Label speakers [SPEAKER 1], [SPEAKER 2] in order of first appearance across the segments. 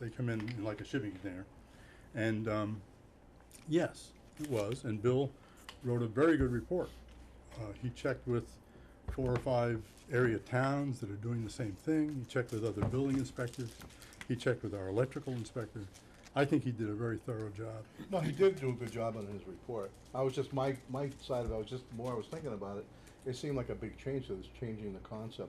[SPEAKER 1] They come in in like a shipping container. And, um, yes, it was, and Bill wrote a very good report. Uh, he checked with four or five area towns that are doing the same thing. He checked with other building inspectors. He checked with our electrical inspector. I think he did a very thorough job.
[SPEAKER 2] No, he did do a good job on his report. I was just, my, my side of it, I was just, more I was thinking about it, it seemed like a big change, so it was changing the concept,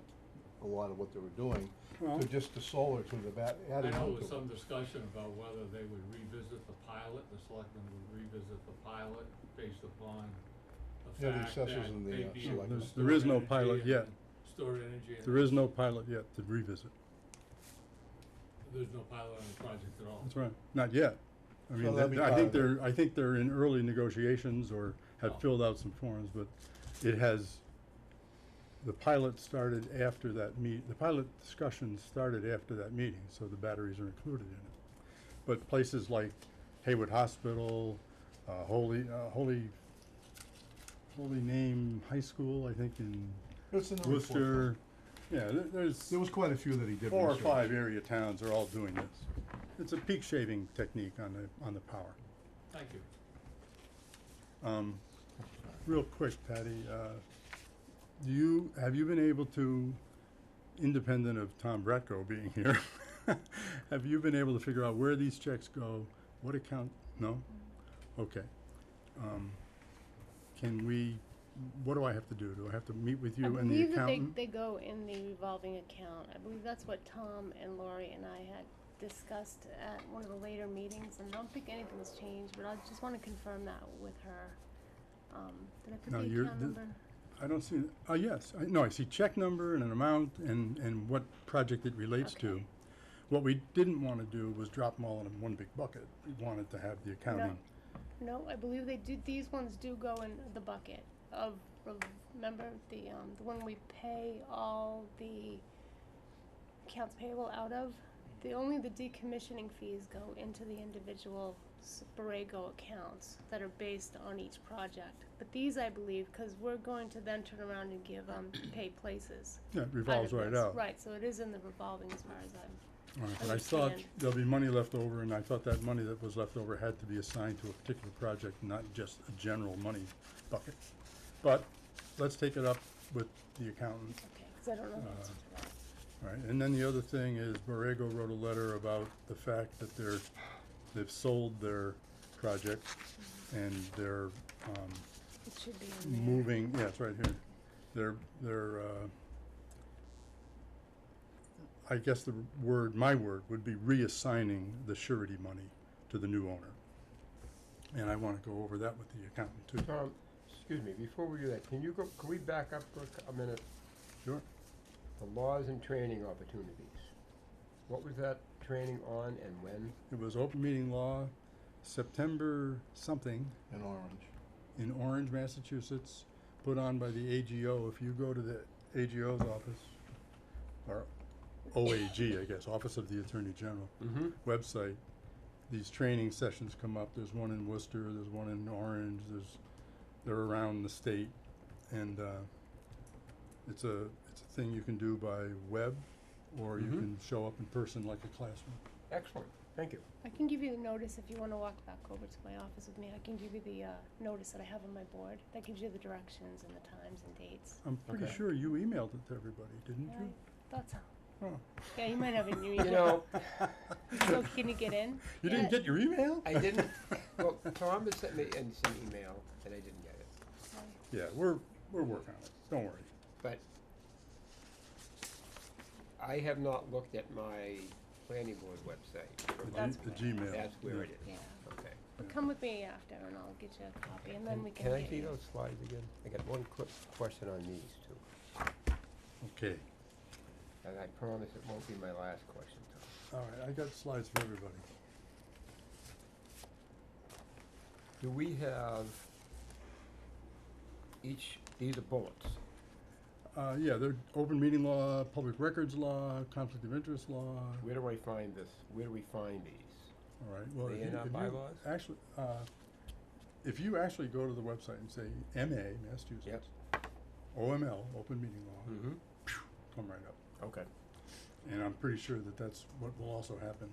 [SPEAKER 2] a lot of what they were doing,
[SPEAKER 1] Well-
[SPEAKER 2] to just the solar to the bat,
[SPEAKER 3] I
[SPEAKER 2] adding
[SPEAKER 3] know
[SPEAKER 2] on
[SPEAKER 3] there was
[SPEAKER 2] to it.
[SPEAKER 3] some discussion about whether they would revisit the pilot, the selectmen would revisit the pilot based upon
[SPEAKER 2] Yeah,
[SPEAKER 3] the
[SPEAKER 2] the
[SPEAKER 3] fact that
[SPEAKER 2] assessors and the,
[SPEAKER 3] they
[SPEAKER 2] uh,
[SPEAKER 3] deal
[SPEAKER 2] selectmen.
[SPEAKER 3] with
[SPEAKER 2] There's-
[SPEAKER 1] there is
[SPEAKER 3] stored
[SPEAKER 1] no
[SPEAKER 3] energy
[SPEAKER 1] pilot
[SPEAKER 3] and
[SPEAKER 1] yet.
[SPEAKER 3] Stored energy. and-
[SPEAKER 1] There is no pilot yet to revisit.
[SPEAKER 3] There's no pilot on the project at all.
[SPEAKER 1] That's right. Not yet. I
[SPEAKER 2] So
[SPEAKER 1] mean,
[SPEAKER 2] that'd
[SPEAKER 1] that-
[SPEAKER 2] be
[SPEAKER 1] I
[SPEAKER 2] part
[SPEAKER 1] think
[SPEAKER 2] of it.
[SPEAKER 1] they're, I think they're in early negotiations or
[SPEAKER 3] Oh.
[SPEAKER 1] have filled out some forms, but it has, the pilot started after that meet, the pilot discussion started after that meeting, so the batteries are included in it. But places like Haywood Hospital, uh, Holy, uh, Holy, Holy Name High School, I think in
[SPEAKER 2] It's in the report, though.
[SPEAKER 1] Worcester. Yeah, there- there's.
[SPEAKER 2] There was quite a few that he did
[SPEAKER 1] Four or
[SPEAKER 2] research.
[SPEAKER 1] five area towns are all doing this. It's a peak shaving technique on the, on the power.
[SPEAKER 3] Thank you.
[SPEAKER 1] Um, real quick, Patty, uh, do you, have you been able to, independent of Tom Bratko being here, have you been able to figure out where these checks go, what account, no? Okay. Um, can we, what do I have to do? Do I have to meet with you and the
[SPEAKER 4] I believe
[SPEAKER 1] accountant?
[SPEAKER 4] that they, they go in the revolving account. I believe that's what Tom and Lori and I had discussed at one of the later meetings, and I don't think anything's changed, but I just wanna confirm that with her. Um, did I put
[SPEAKER 1] Now,
[SPEAKER 4] the
[SPEAKER 1] you're-
[SPEAKER 4] account
[SPEAKER 1] th-
[SPEAKER 4] number?
[SPEAKER 1] I don't see, oh, yes, I, no, I see check number and an amount and, and what project it relates to.
[SPEAKER 4] Okay.
[SPEAKER 1] What we didn't wanna do was drop them all in one big bucket, we wanted to have the accounting.
[SPEAKER 4] No, I believe they do, these ones do go in the bucket of, rev- remember the, um, the one we pay all the accounts payable out of? The, only the decommissioning fees go into the individual s- Borrego accounts that are based on each project. But these, I believe, cause we're going to then turn around and give, um, pay places.
[SPEAKER 1] Yeah, it
[SPEAKER 4] out
[SPEAKER 1] revolves
[SPEAKER 4] of
[SPEAKER 1] right
[SPEAKER 4] this.
[SPEAKER 1] out.
[SPEAKER 4] Right, so it is in the revolving as far as I'm,
[SPEAKER 1] All right, but I thought
[SPEAKER 4] Understand.
[SPEAKER 1] there'll be money left over, and I thought that money that was left over had to be assigned to a particular project, not just a general money bucket. But, let's take it up with the accountant.
[SPEAKER 4] okay, cause I don't know the
[SPEAKER 1] Uh-huh.
[SPEAKER 4] answer to that.
[SPEAKER 1] All right, and then the other thing is Borrego wrote a letter about the fact that they're, they've sold their project and they're, um,
[SPEAKER 4] It should be in there.
[SPEAKER 1] moving, yeah, it's right here. They're, they're, uh, I guess the word, my word, would be reassigning the surety money to the new owner. And I wanna go over that with the accountant too.
[SPEAKER 5] Tom, excuse me, before we do that, can you go, can we back up for a c- a minute?
[SPEAKER 1] Sure.
[SPEAKER 5] The laws and training opportunities. What was that training on and when?
[SPEAKER 1] It was open meeting law, September something,
[SPEAKER 2] In orange.
[SPEAKER 1] in Orange, Massachusetts, put on by the AGO. If you go to the AGO's office, or OAG, I guess, Office of the Attorney General,
[SPEAKER 5] Mm-hmm.
[SPEAKER 1] website, these training sessions come up. There's one in Worcester, there's one in Orange, there's, they're around the state. And, uh, it's a, it's a thing you can do by web, or you
[SPEAKER 5] Mhm.
[SPEAKER 1] can show up in person like a classroom.
[SPEAKER 5] Excellent, thank you.
[SPEAKER 4] I can give you the notice if you wanna walk back over to my office with me, I can give you the, uh, notice that I have on my board, that gives you the directions and the times and dates.
[SPEAKER 1] I'm pretty
[SPEAKER 5] Okay.
[SPEAKER 1] sure you emailed it to everybody, didn't
[SPEAKER 4] Alright,
[SPEAKER 1] Oh, you?
[SPEAKER 4] that's all.
[SPEAKER 1] Oh.
[SPEAKER 4] Yeah, you might have a new email.
[SPEAKER 5] You know,
[SPEAKER 4] So can you get in?
[SPEAKER 1] You didn't
[SPEAKER 4] Yeah.
[SPEAKER 1] get your email?
[SPEAKER 5] I didn't, well, Tom had sent me in some email and I didn't get it,
[SPEAKER 4] Sorry.
[SPEAKER 1] Yeah, we're, we're working on it, don't worry.
[SPEAKER 5] but I have not looked at my planning board website. for
[SPEAKER 1] The G-
[SPEAKER 5] months
[SPEAKER 1] the
[SPEAKER 5] now.
[SPEAKER 1] Gmail,
[SPEAKER 5] That's where it
[SPEAKER 4] Yeah,
[SPEAKER 5] is, okay.
[SPEAKER 4] but come with me after and I'll get you a copy and then
[SPEAKER 5] And
[SPEAKER 4] we can
[SPEAKER 5] Can I
[SPEAKER 4] get
[SPEAKER 5] see
[SPEAKER 4] you-
[SPEAKER 5] those slides again? I got one quick question on these two.
[SPEAKER 1] Okay,
[SPEAKER 5] And I promise it won't be my last question, Tom.
[SPEAKER 1] all right, I got slides for everybody.
[SPEAKER 5] Do we have each, these are bullets.
[SPEAKER 1] Uh, yeah, they're open meeting law, public records law, conflict of interest law, all
[SPEAKER 5] Where do I find this? Where do we find these?
[SPEAKER 1] right, well,
[SPEAKER 5] They
[SPEAKER 1] if you,
[SPEAKER 5] in our
[SPEAKER 1] if you
[SPEAKER 5] bylaws?
[SPEAKER 1] actually, uh, if you actually go to the website and say MA, Massachusetts, OML, open meeting law,
[SPEAKER 5] Mm-hmm.
[SPEAKER 1] come right up.
[SPEAKER 5] Okay.
[SPEAKER 1] And I'm pretty sure that that's what will also happen